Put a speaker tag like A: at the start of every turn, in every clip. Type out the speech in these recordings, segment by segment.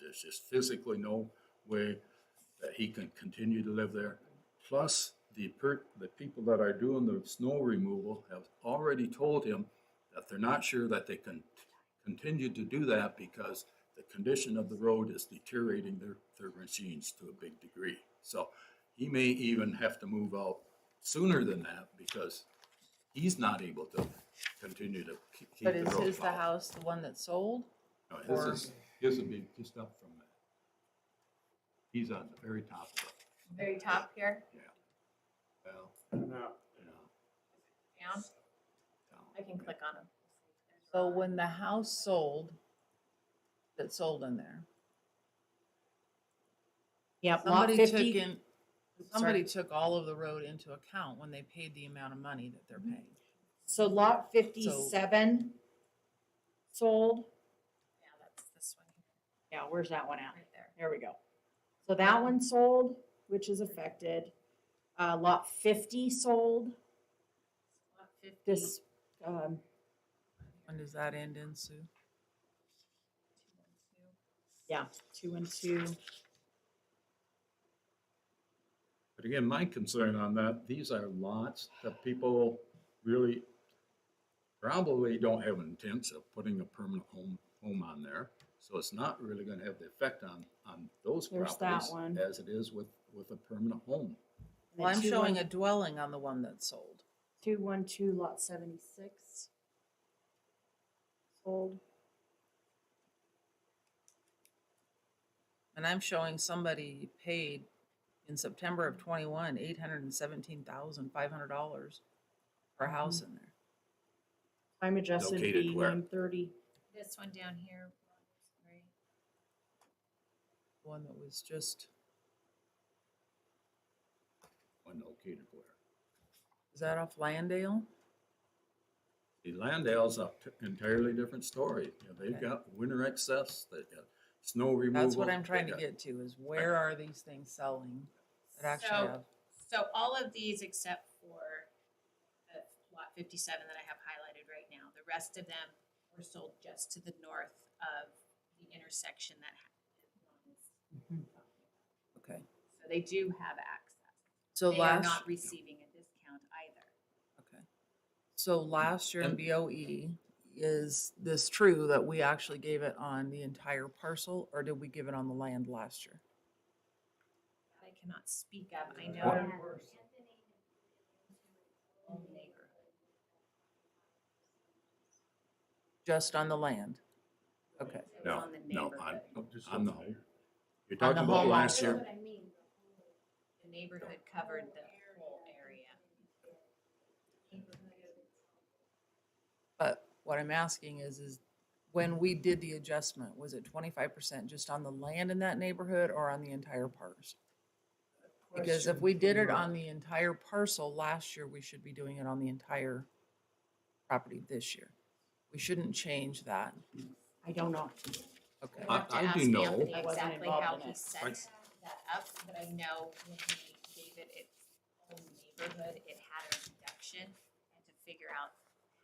A: There's just physically no way that he can continue to live there. Plus, the per, the people that are doing the snow removal have already told him that they're not sure that they can continue to do that because the condition of the road is deteriorating their, their machines to a big degree. So he may even have to move out sooner than that because he's not able to continue to ke- keep the
B: But
A: road
B: is his the
A: plowed.
B: house the one that sold?
A: No, his
B: or-
A: is, his would be just up from that. He's on the very top of it,
C: Very top here,
A: well, you know,
C: down,
A: down.
C: I can click on them.
B: So when the house sold, that sold in there,
D: Yep, lot
B: somebody took
D: fifty.
B: in, somebody took all of the road into account when they paid the amount of money that they're paying.
D: So lot fifty-seven sold.
C: Yeah, that's this one
D: Yeah, where's that one at?
C: right there.
D: There we go. So that one sold, which is affected. Uh, lot fifty sold,
C: Lot 50,
D: this, um,
B: When does that end in, Sue?
C: 212.
D: yeah, two and two.
A: But again, my concern on that, these are lots that people really probably don't have intents of putting a permanent home, home on there. So it's not really gonna have the effect on, on those
D: There's
A: properties.
D: that one.
A: As it is with, with a permanent home.
D: and then
B: Well, I'm
D: two
B: showing
D: one-
B: a dwelling on the one that sold.
D: Two one two lot seventy-six. Sold.
B: And I'm showing somebody paid in September of twenty-one, eight hundred and seventeen thousand, five hundred dollars for
D: Mm-hmm.
B: a house in there.
D: Time adjusted
A: Located
D: B
A: where?
D: one thirty.
C: This one down here, sorry.
B: One that was just,
A: When located where?
B: is that off Landale?
A: The Landale's a t- entirely different story. You know, they've
B: Okay.
A: got winter excess, they've got snow removal.
B: That's what I'm
A: they
B: trying to
A: got-
B: get to, is where are these things selling that actually
C: So-
B: have?
C: So all of these except for the lot fifty-seven that I have highlighted right now, the rest of them were sold just to the north of the intersection that. ha-
B: Okay,
C: So they do have access.
B: so
C: They are
B: last.
C: not receiving a discount either.
B: Okay. So last year in
A: And-
B: BOE, is this true that we actually gave it on the entire parcel or did we give it on the land last year?
C: that I cannot speak of. I know.
A: What-
C: Own neighborhood.
B: Just on the land? Okay,
C: It was
A: No,
C: on the
A: no, on,
C: neighborhood.
A: on the home. You're
B: On the
A: talking about
B: home
A: last
B: also.
A: year,
C: The neighborhood covered the whole area.
B: but what I'm asking is, is when we did the adjustment, was it twenty-five percent just on the land in that neighborhood or on the entire parcel? Because if we did it on the entire parcel last year, we should be doing it on the entire property this year. We shouldn't change that.
D: I don't know.
B: Okay.
C: I'll have to
A: I
C: ask
A: do know-
C: Anthony
D: I wasn't
C: Exactly
D: involved
C: how
D: in
C: he
D: it.
C: set
A: Right.
C: that up, but I know when he gave it its own neighborhood, it had a reduction. And to figure out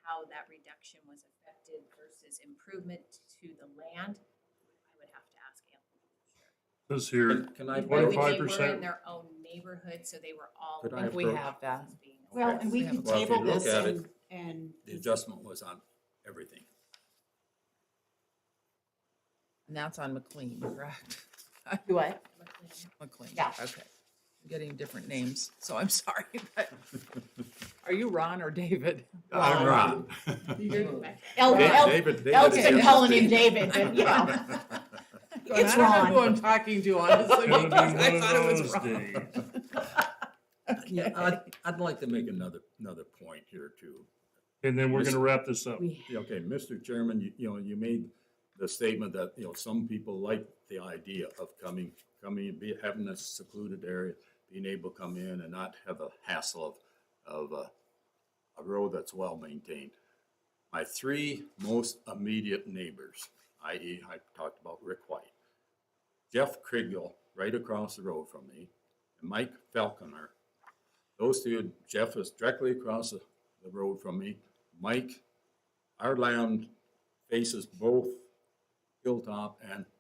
C: how that reduction was affected versus improvement to the land, I would have to ask Anthony. for sure.
E: This here,
A: Can- can I?
C: I think they were
E: 25%.
C: in their own neighborhood, so they were all.
A: Could I
B: think we
A: approach-
B: have that.
D: Well, and we
B: Okay.
D: can
A: Well, if you
D: table
A: look
D: this
A: at it,
D: and, and.
A: The adjustment was on everything.
B: And that's on McLean, correct?
D: Do what?
B: McLean.
D: Yeah.
B: Okay. I'm Getting different names, so I'm sorry, but are you Ron or David?
A: I'm Ron.
B: Um,
D: El,
A: Da-
D: El,
A: David- David
D: Elk's been
A: is
D: calling him
A: the-
D: David, but yeah. It's
B: I don't know who
D: Ron.
B: I'm talking to, honestly,
E: it'll be
B: because I
E: one
B: thought it
E: of
B: was
E: those
B: Ron.
E: days.
A: Yeah, I'd, I'd like to make another, another point here too.
E: And then we're gonna wrap this up.
D: We-
A: Yeah, Okay, Mr. Chairman, you, you know, you made the statement that, you know, some people like the idea of coming, coming, and be, having a secluded area, being able to come in and not have the hassle of, of a, a road that's well maintained. My three most immediate neighbors, i.e., I talked about Rick White, Jeff Kriegel, right across the road from me, and Mike Falconer. Those two, Jeff is directly across the, the road from me. Mike our land faces both Hilltop and